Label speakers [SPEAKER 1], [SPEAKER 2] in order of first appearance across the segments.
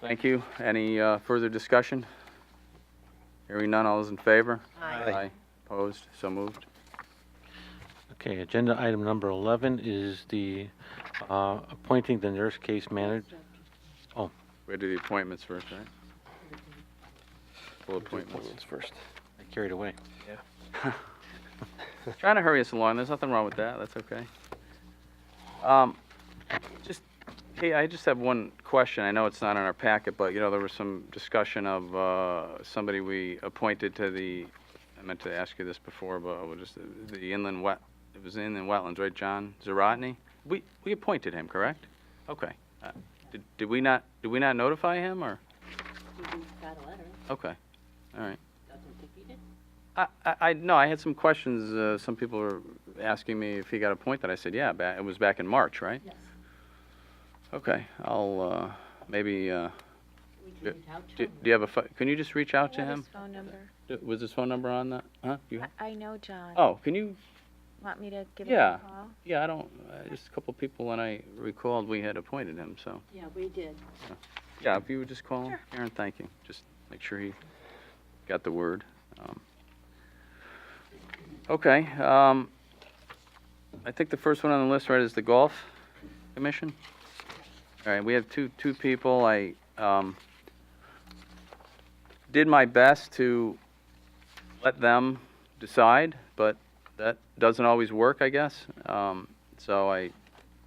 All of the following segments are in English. [SPEAKER 1] Thank you. Any uh, further discussion? Hearing none, all those in favor?
[SPEAKER 2] Aye.
[SPEAKER 1] Opposed? So moved.
[SPEAKER 3] Okay, agenda item number 11 is the uh, appointing the nurse case manager.
[SPEAKER 1] We had to do the appointments first, right? Full appointments.
[SPEAKER 4] first.
[SPEAKER 3] I carried away.
[SPEAKER 1] Trying to hurry us along, there's nothing wrong with that, that's okay. Um, just, hey, I just have one question, I know it's not in our packet, but, you know, there was some discussion of, uh, somebody we appointed to the, I meant to ask you this before, but we'll just, the inland wet, it was inland wetlands, right, John Zarotny? We, we appointed him, correct? Okay. Uh, Did, did we not, did we not notify him, or,
[SPEAKER 2] He got a letter,
[SPEAKER 1] okay, all right.
[SPEAKER 2] doesn't think he did.
[SPEAKER 1] I, I, I- no, I had some questions. Uh, some people were asking me if he got appointed. I said, yeah, ba- it was back in March, right?
[SPEAKER 2] Yes.
[SPEAKER 1] Okay, I'll uh, maybe. Uh,
[SPEAKER 2] We can
[SPEAKER 1] Yeah.
[SPEAKER 2] reach out to
[SPEAKER 1] do,
[SPEAKER 2] him.
[SPEAKER 1] do you have a? pho- Can you just reach out to
[SPEAKER 5] I have
[SPEAKER 1] him?
[SPEAKER 5] his phone number.
[SPEAKER 1] D- Was his phone number on that? Huh? You,
[SPEAKER 5] I- I know John.
[SPEAKER 1] oh, can you?
[SPEAKER 5] Want me to give
[SPEAKER 1] Yeah.
[SPEAKER 5] him a call?
[SPEAKER 1] Yeah, I don't. Uh, just a couple people when I recalled we had appointed him. So
[SPEAKER 2] Yeah, we did.
[SPEAKER 1] yeah, if you would just call him, Aaron. Thank you. Just make sure he got the word. Um, okay. Um, I think the first one on the list, right, is the golf commission. All right, we have two, two people. I, um, did my best to let them decide, but that doesn't always work, I guess. Um, so I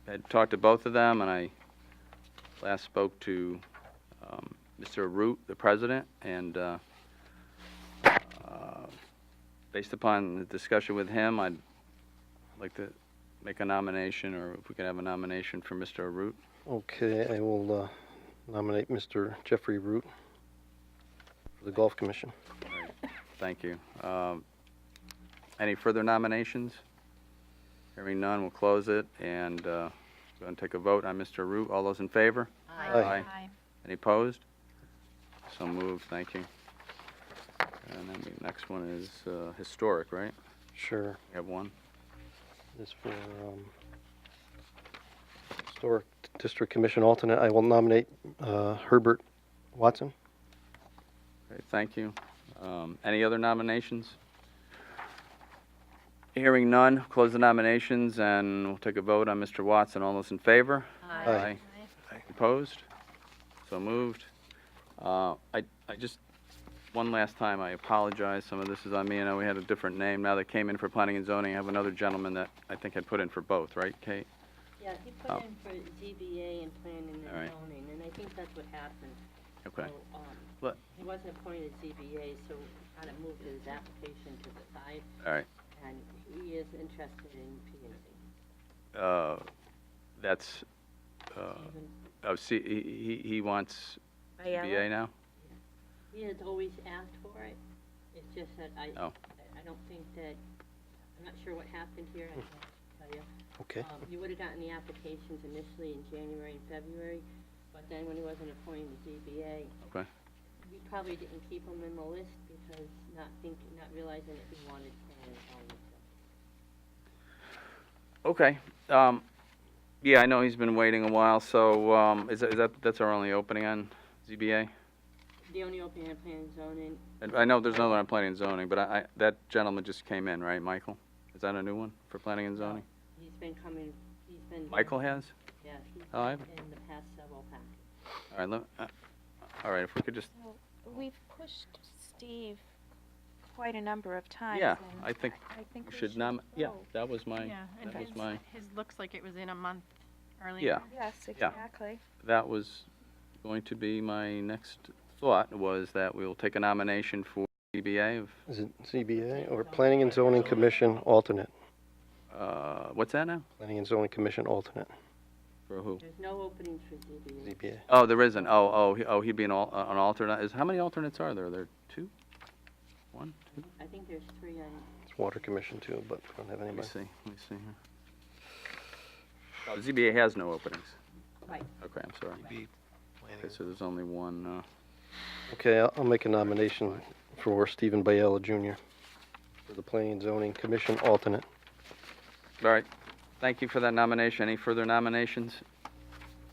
[SPEAKER 1] had talked to both of them and I last spoke to, um, Mr. Root, the president, and, uh, uh, based upon the discussion with him, I'd like to make a nomination, or if we could have a nomination for Mr. Root.
[SPEAKER 4] Okay, I will uh, nominate Mr. Jeffrey Root for the Golf Commission.
[SPEAKER 1] Thank you. Um, Any further nominations? Hearing none, we'll close it and uh, go and take a vote on Mr. Root. All those in favor?
[SPEAKER 4] Aye.
[SPEAKER 1] Any opposed? So moved, thank you. And then the next one is uh, historic, right?
[SPEAKER 4] Sure,
[SPEAKER 1] We have one.
[SPEAKER 4] this for um, Historic District Commission alternate. I will nominate uh, Herbert Watson.
[SPEAKER 1] Okay, Thank you. Um, Any other nominations? Hearing none, close the nominations and we'll take a vote on Mr. Watson. All those in favor?
[SPEAKER 4] Aye.
[SPEAKER 1] Opposed? So moved. Uh, I, I just, one last time, I apologize, some of this is on me, I know we had a different name, now that came in for planning and zoning, I have another gentleman that I think had put in for both, right, Kate?
[SPEAKER 2] Yeah, he
[SPEAKER 1] Oh.
[SPEAKER 2] put in for ZBA and planning
[SPEAKER 1] All right.
[SPEAKER 2] and zoning, and I think that's what happened.
[SPEAKER 1] Okay,
[SPEAKER 2] So, um,
[SPEAKER 1] Let-
[SPEAKER 2] He wasn't appointed ZBA, so we kind of moved his application to the side,
[SPEAKER 1] all right.
[SPEAKER 2] and he is interested in P and Z.
[SPEAKER 1] Uh, That's, uh, oh, see, he, he- he wants
[SPEAKER 5] Ayala?
[SPEAKER 1] ZBA now?
[SPEAKER 2] He has always asked for it, it's just that I,
[SPEAKER 1] Oh.
[SPEAKER 2] I- I don't think that, I'm not sure what happened here, I can't tell you.
[SPEAKER 4] Okay,
[SPEAKER 2] Um, You would have gotten the applications initially in January and February, but then when he wasn't appointed to ZBA.
[SPEAKER 1] Okay.
[SPEAKER 2] We probably didn't keep him in the list because not thinking, not realizing that he wanted planning and zoning.
[SPEAKER 1] Okay, um, yeah, I know he's been waiting a while, so, um, is that- is that, that's our only opening on ZBA?
[SPEAKER 2] The only opening on planning and zoning,
[SPEAKER 1] And I know there's another on planning and zoning, but I, I, that gentleman just came in, right, Michael? Is that a new one for planning and zoning?
[SPEAKER 2] he's been coming, he's been.
[SPEAKER 1] Michael has?
[SPEAKER 2] Yeah, he's
[SPEAKER 1] Oh, I-
[SPEAKER 2] been in the past several packets.
[SPEAKER 1] All right, let, uh, all right, if we could just,
[SPEAKER 5] We've pushed Steve quite a number of times.
[SPEAKER 1] yeah,
[SPEAKER 5] and
[SPEAKER 1] I think
[SPEAKER 5] I think
[SPEAKER 1] we should nom, yeah, that was my,
[SPEAKER 6] Yeah, and
[SPEAKER 1] that was
[SPEAKER 6] his,
[SPEAKER 1] my,
[SPEAKER 6] his looks like it was in a month earlier.
[SPEAKER 1] yeah.
[SPEAKER 5] Yes, exactly.
[SPEAKER 1] That was going to be my next thought, was that we'll take a nomination for CBA of,
[SPEAKER 4] is it CBA or Planning and Zoning Commission alternate?
[SPEAKER 1] uh, what's that now?
[SPEAKER 4] Planning and Zoning Commission alternate,
[SPEAKER 1] For who?
[SPEAKER 2] There's no openings for ZBA.
[SPEAKER 4] ZBA.
[SPEAKER 1] Oh, there isn't, oh, oh, he- oh, he'd be an al, uh, an alternate, is, how many alternates are there? There are two? One, two?
[SPEAKER 2] I think there's three on,
[SPEAKER 4] It's Water Commission too, but I don't
[SPEAKER 1] Let
[SPEAKER 4] have
[SPEAKER 1] me
[SPEAKER 4] anybody.
[SPEAKER 1] see, let me see here. Oh, ZBA has no openings.
[SPEAKER 2] Right.
[SPEAKER 1] Okay, I'm sorry. Okay, so there's only one, uh,
[SPEAKER 4] Okay, I'll, I'll make a nomination for Stephen Biella Jr. for the Planning and Zoning Commission alternate.
[SPEAKER 1] all right. Thank you for that nomination. Any further nominations?